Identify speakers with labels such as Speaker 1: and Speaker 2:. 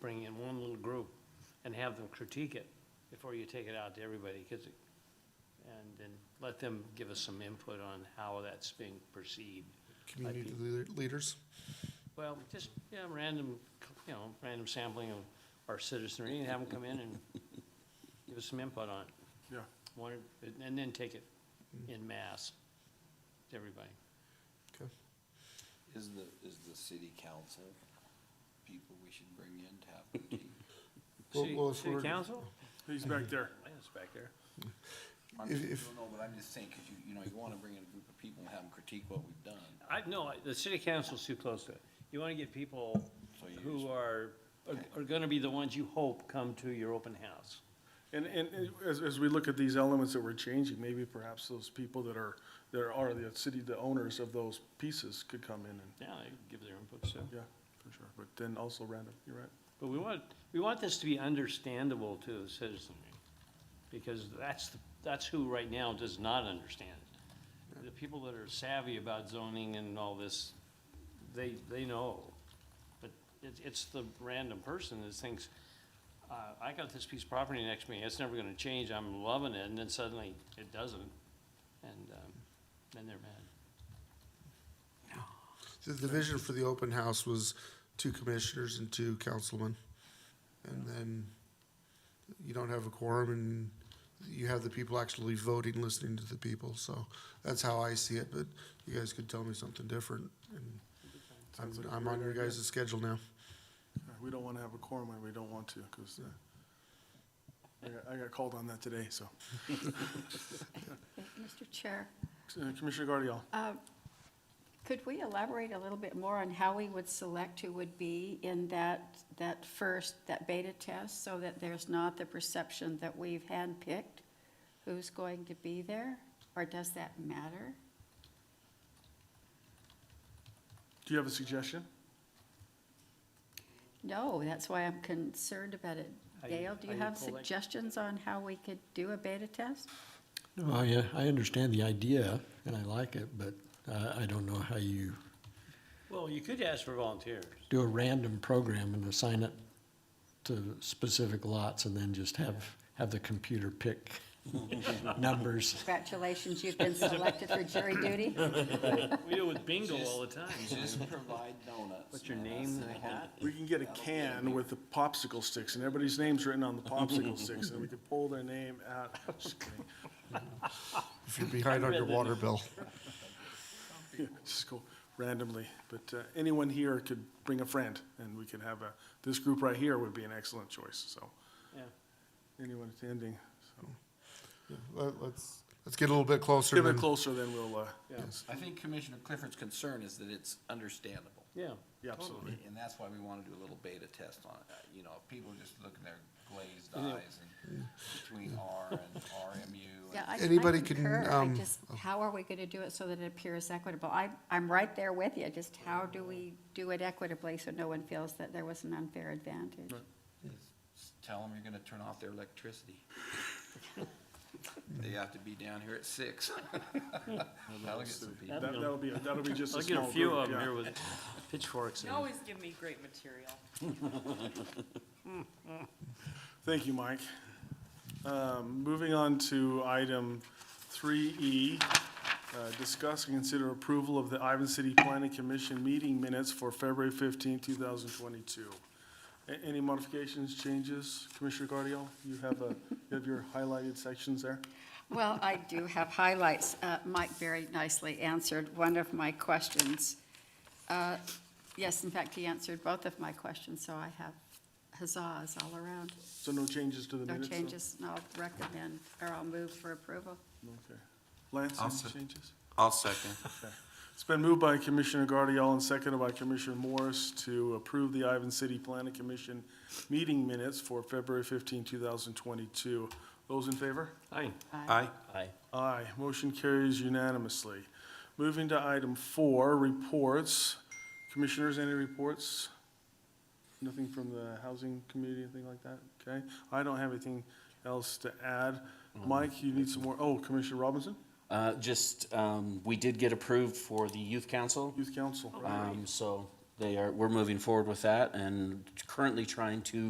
Speaker 1: bring in one little group and have them critique it before you take it out to everybody, 'cause it- and then let them give us some input on how that's being perceived.
Speaker 2: community leader- leaders.
Speaker 1: Well, just, yeah, random, you know, random sampling of our citizenry, and have them come in and give us some input on it.
Speaker 2: Yeah.
Speaker 1: Wanted, and then take it in mass to everybody.
Speaker 2: Okay.
Speaker 3: Is the, is the city council people we should bring in to have critique?
Speaker 2: Well,
Speaker 1: City-
Speaker 2: well, if
Speaker 1: City
Speaker 2: we're-
Speaker 1: council?
Speaker 4: He's back there.
Speaker 1: Yes, back there.
Speaker 3: I'm
Speaker 2: If-
Speaker 3: just-
Speaker 2: if-
Speaker 3: No, no, but I'm just saying, because you, you know, you want to bring in a group of people and have them critique what we've done.
Speaker 1: I, no, I- the city council's too close to it. You wanna get people
Speaker 3: So you
Speaker 1: who
Speaker 3: just-
Speaker 1: are, are- are gonna be the ones you hope come to your open house.
Speaker 4: And, and as, as we look at these elements that we're changing, maybe perhaps those people that are, that are the city, the owners of those pieces could come in and,
Speaker 1: Yeah, they give their input, so.
Speaker 4: yeah, for sure. But then also random, you're right.
Speaker 1: But we want, we want this to be understandable to the citizenry, because that's, the- that's who right now does not understand it. The people that are savvy about zoning and all this, they, they know. But it's, it's the random person that thinks, uh, I got this piece of property next to me, it's never gonna change, I'm loving it, and then suddenly it doesn't, and, um, then they're mad.
Speaker 2: The, the vision for the open house was two commissioners and two councilmen. And then you don't have a quorum and you have the people actually voting, listening to the people. So that's how I see it, but you guys could tell me something different. and I'm,
Speaker 4: Sounds like a
Speaker 2: I'm on
Speaker 4: great
Speaker 2: your
Speaker 4: idea.
Speaker 2: guys' schedule now.
Speaker 4: We don't want to have a quorum when we don't want to, because I got, I got called on that today, so.
Speaker 5: Mr. Chair,
Speaker 4: Uh, Commissioner Guardiola,
Speaker 5: could we elaborate a little bit more on how we would select who would be in that, that first, that beta test, so that there's not the perception that we've handpicked who's going to be there? Or does that matter?
Speaker 4: do you have a suggestion?
Speaker 5: No, that's why I'm concerned about it.
Speaker 1: How you-
Speaker 5: Dale, do
Speaker 1: how
Speaker 5: you
Speaker 1: you
Speaker 5: have
Speaker 1: collect-
Speaker 5: suggestions on how we could do a beta test?
Speaker 6: No, I, uh, I understand the idea and I like it, but uh, I don't know how you
Speaker 1: Well, you could ask for volunteers.
Speaker 6: do a random program and assign it to specific lots and then just have, have the computer pick numbers.
Speaker 5: Congratulations, you've been selected for jury duty.
Speaker 1: We do it with bingo all the time.
Speaker 3: Just provide donuts.
Speaker 1: What's your
Speaker 3: man,
Speaker 1: name
Speaker 3: that's
Speaker 1: and a
Speaker 3: the
Speaker 1: hat?
Speaker 3: whole-
Speaker 4: We can get a can with the popsicle sticks and everybody's name's written on the popsicle sticks and we could pull their name out. Just kidding.
Speaker 2: If you're behind on your water bill.
Speaker 4: Yeah, just go randomly, but uh, anyone here could bring a friend, and we could have a, this group right here would be an excellent choice, so,
Speaker 1: Yeah.
Speaker 4: anyone attending, so.
Speaker 2: Let, let's, let's get a little bit closer.
Speaker 4: Get a bit
Speaker 2: then.
Speaker 4: closer, then we'll, uh,
Speaker 2: Yes.
Speaker 3: I think Commissioner Clifford's concern is that it's understandable.
Speaker 1: Yeah.
Speaker 4: yeah, absolutely.
Speaker 3: And that's why we want to do a little beta test on it. Uh, You know, if people just look at their glazed
Speaker 1: Yeah.
Speaker 3: eyes and between R and RMU.
Speaker 5: Yeah,
Speaker 3: and-
Speaker 5: I- I
Speaker 2: Anybody can,
Speaker 5: concur. I
Speaker 2: um,
Speaker 5: just- How are we going to do it so that it appears equitable? I, I'm right there with you, just how do we do it equitably so no one feels that there was an unfair advantage?
Speaker 3: Just Tell them you're going to turn off their electricity. They have to be down here at six. That'll get some people.
Speaker 4: That- That'll be, that'll be just
Speaker 1: I'll
Speaker 4: a
Speaker 1: get a
Speaker 4: small
Speaker 1: few
Speaker 4: group,
Speaker 1: of them here
Speaker 4: yeah.
Speaker 1: with pitchforks
Speaker 7: You
Speaker 1: and,
Speaker 7: always give me great material.
Speaker 4: Thank you, Mike. Um, Moving on to item three E, discuss and consider approval of the Ivan City Planning Commission meeting minutes for February fifteenth, two thousand twenty-two. Any modifications, changes? Commissioner Guardiola, you have a, you have your highlighted sections there?
Speaker 5: Well, I do have highlights. Uh, Mike very nicely answered one of my questions. Uh, Yes, in fact, he answered both of my questions, so I have huzzas all around.
Speaker 4: So no changes to the
Speaker 5: No
Speaker 4: minutes? though?
Speaker 5: changes, and I'll recommend, or I'll move for approval.
Speaker 4: Okay. Lance,
Speaker 8: I'll
Speaker 4: any
Speaker 8: se-
Speaker 4: changes?
Speaker 8: I'll second.
Speaker 4: It's been moved by Commissioner Guardiola and seconded by Commissioner Morris to approve the Ivan City Planning Commission meeting minutes for February 15, 2022. Those in favor?
Speaker 1: aye.
Speaker 8: Aye.
Speaker 4: Aye. Motion carries unanimously. Moving to item four, reports. Commissioners, any reports? Nothing from the housing committee, anything like that? Okay. I don't have anything else to add. Mike, you need some more, oh, Commissioner Robinson,
Speaker 9: Uh, just, um, we did get approved for the youth council,
Speaker 4: Youth Council.
Speaker 9: um, so they are, we're moving forward with that and currently trying to